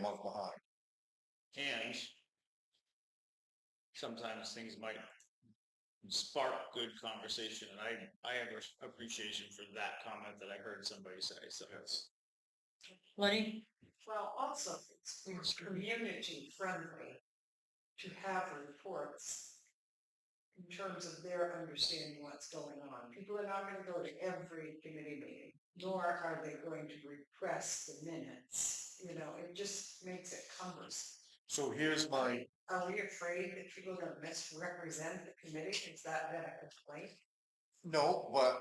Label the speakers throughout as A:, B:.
A: month behind.
B: And sometimes things might spark good conversation, and I, I have a- appreciation for that comment that I heard somebody say, so.
C: Lenny?
D: Well, also, it's, it's community friendly to have reports in terms of their understanding what's going on. People are not going to go to every committee meeting, nor are they going to repress the minutes. You know, it just makes it cumbersome.
A: So here's my,
D: Are we afraid that people are going to misrepresent the committee? Is that been a complaint?
A: no, but.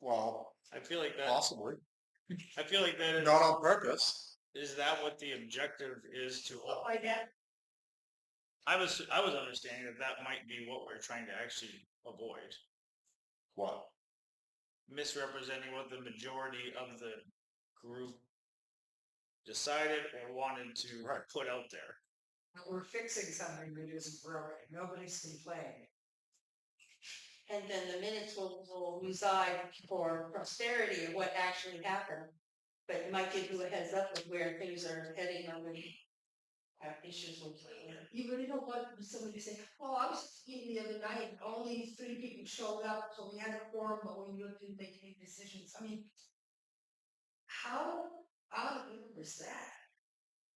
A: Well,
B: I feel like that,
A: possibly,
B: I feel like that,
A: not on purpose.
B: is is that what the objective is to, all-
D: Like that?
B: I was, I was understanding that that might be what we're trying to actually avoid.
A: What?
B: misrepresenting what the majority of the group decided or wanted to
A: Right.
B: put out there.
D: We're fixing something that isn't broken. Nobody's complaining.
C: And then the minutes will, will reside for posterity of what actually happened. But it might give you a heads up of where things are heading or when uh, issues will play.
E: You really don't want somebody to say, oh, I was just eating the other night and only three people showed up, so we had a quorum, but we really didn't make any decisions. I mean, how out of order was that?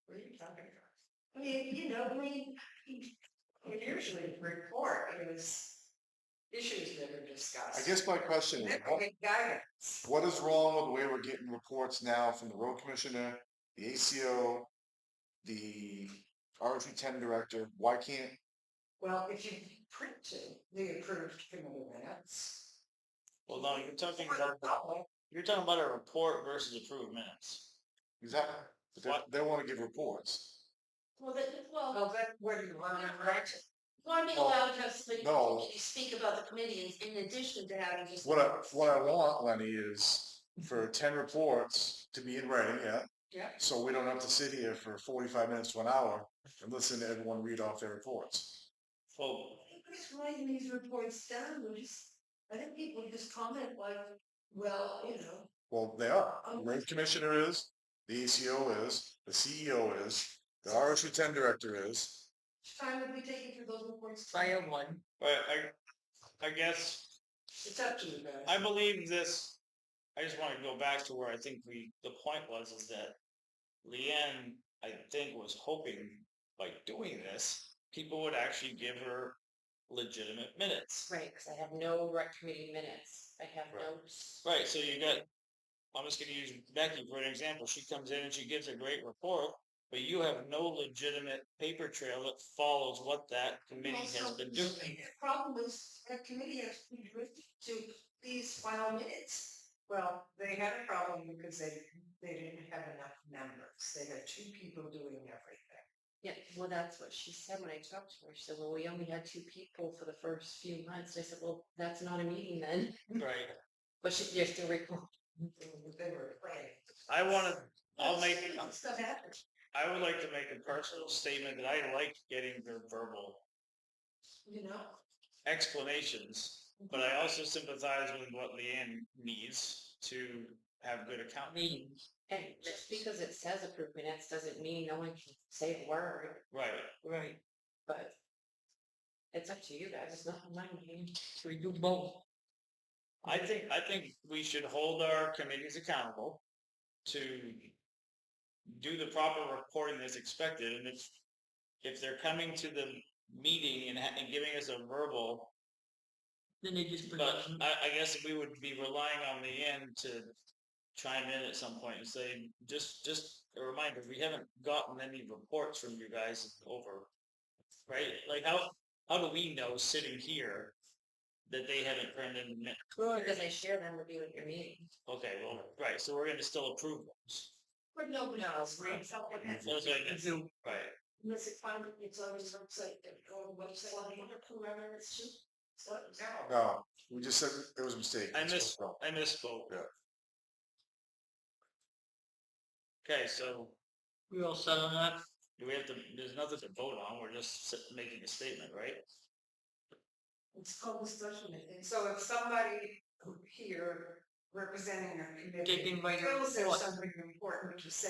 D: What are you talking about?
E: I mean, you know, I mean,
D: I mean, Usually in report, it was issues that are discussed.
A: I guess my question is,
D: That
A: what-
D: would be guidance.
A: what is wrong with the way we're getting reports now from the road commissioner, the ACO, the RFP ten director? Why can't,
D: Well, if you printed the approved committee minutes.
B: Well, no, you're talking
D: for the
B: about,
D: public,
B: you're talking about a report versus approved minutes.
A: exactly, but
B: What?
A: they, they wanna give reports.
E: well, that, well,
D: Well, then what do you want to write?
C: Want to be
A: Well,
C: allowed to have somebody from the
A: no.
C: committee speak about the committee in in addition to having just.
A: What I, what I want, Lenny, is
B: Mm-hmm.
A: for ten reports to be in writing, yeah?
D: Yeah.
A: So we don't have to sit here for forty-five minutes to an hour and listen to everyone read off their reports.
B: Well,
E: nobody's writing these reports down, we're just, I think people just comment like, well, you know,
A: Well, they are,
B: Oh.
A: the road commissioner is, the ACO is, the CEO is, the RFP ten director is.
E: time would be taken for those reports. to-
D: Bio one.
B: but I, I guess
D: It's up to you guys.
B: I believe this, I just want to go back to where I think we, the point was is that Leanne, I think, was hoping by doing this, people would actually give her legitimate minutes.
C: Right, because I have no rec committee minutes. I have no
B: Right, so you got, I'm just gonna use Becky for an example, she comes in and she gives a great report, but you have no legitimate paper trail that follows what that committee has
E: Also,
B: been doing.
E: The problem is that committee has to be driven to these final minutes.
D: Well, they had a problem because they, they didn't have enough members. They had two people doing everything.
C: Yeah, well, that's what she said when I talked to her. She said, well, we only had two people for the first few months. I said, well, that's not a meeting then.
B: Right,
C: But she, you're still recording.
D: They were- They were planning.
B: I wanna, I'll make,
E: Stuff happens.
B: I would like to make a personal statement that I like getting their verbal
E: You know,
B: explanations, but I also sympathize with what Leanne needs to have good accounting.
C: And just because it says approved minutes doesn't mean no one can say a word,
B: Right.
F: Right,
C: but it's up to you guys. It's not my meeting.
F: so we do both.
B: I think, I think we should hold our committees accountable to do the proper reporting that's expected, and if, if they're coming to the meeting and, ha- and giving us a verbal,
F: Then they just bring.
B: but
D: Mm-hmm.
B: I, I guess we would be relying on Leanne to chime in at some point and say, just, just a reminder, we haven't gotten any reports from you guys over right? Like how how do we know sitting here that they haven't turned in the minutes?
C: Because I share them with you at your meeting.
B: Okay, well, right. So we're going to still approve those.
E: but nobody else reads out what happens.
B: Those are the-
F: So,
B: right.
E: Unless it finally gets on his website, they go on the website, I wonder who ever it's to. So,
D: No.
A: No, we just said it was a mistake.
B: I
A: It's
B: miss-
A: wrong.
B: I misspoke.
A: Yeah.
B: Okay, so
F: we all set on that?
B: do we have to? There's nothing to vote on. We're just s- making a statement, right?
E: it's called discussion, I
D: And
E: think.
D: so if somebody here representing a
F: Take
D: committee
F: invite.
D: feels there's
F: report.
D: something important to say,